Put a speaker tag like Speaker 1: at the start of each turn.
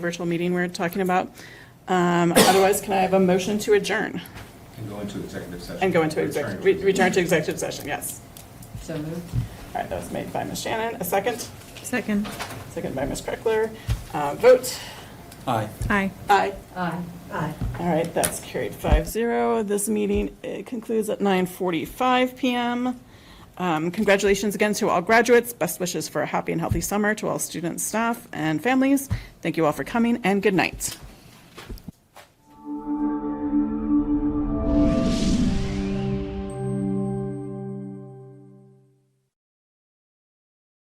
Speaker 1: virtual meeting we're talking about. Um, Otherwise, can I have a motion to adjourn
Speaker 2: And go into executive session.
Speaker 1: and go into
Speaker 2: Return
Speaker 1: executive, return to executive session? Yes.
Speaker 3: So moved.
Speaker 1: All right, that was made by Ms. Shannon. A second?
Speaker 4: Second.
Speaker 1: Second by Ms. Kreckler. Uh, Vote?
Speaker 2: Aye.
Speaker 4: Aye.
Speaker 1: Aye.
Speaker 3: Aye. Aye.
Speaker 1: All right, that's carried five zero. This meeting uh, concludes at 9:45 PM. Um, Congratulations again to all graduates. Best wishes for a happy and healthy summer to all students, staff, and families. Thank you all for coming, and good night.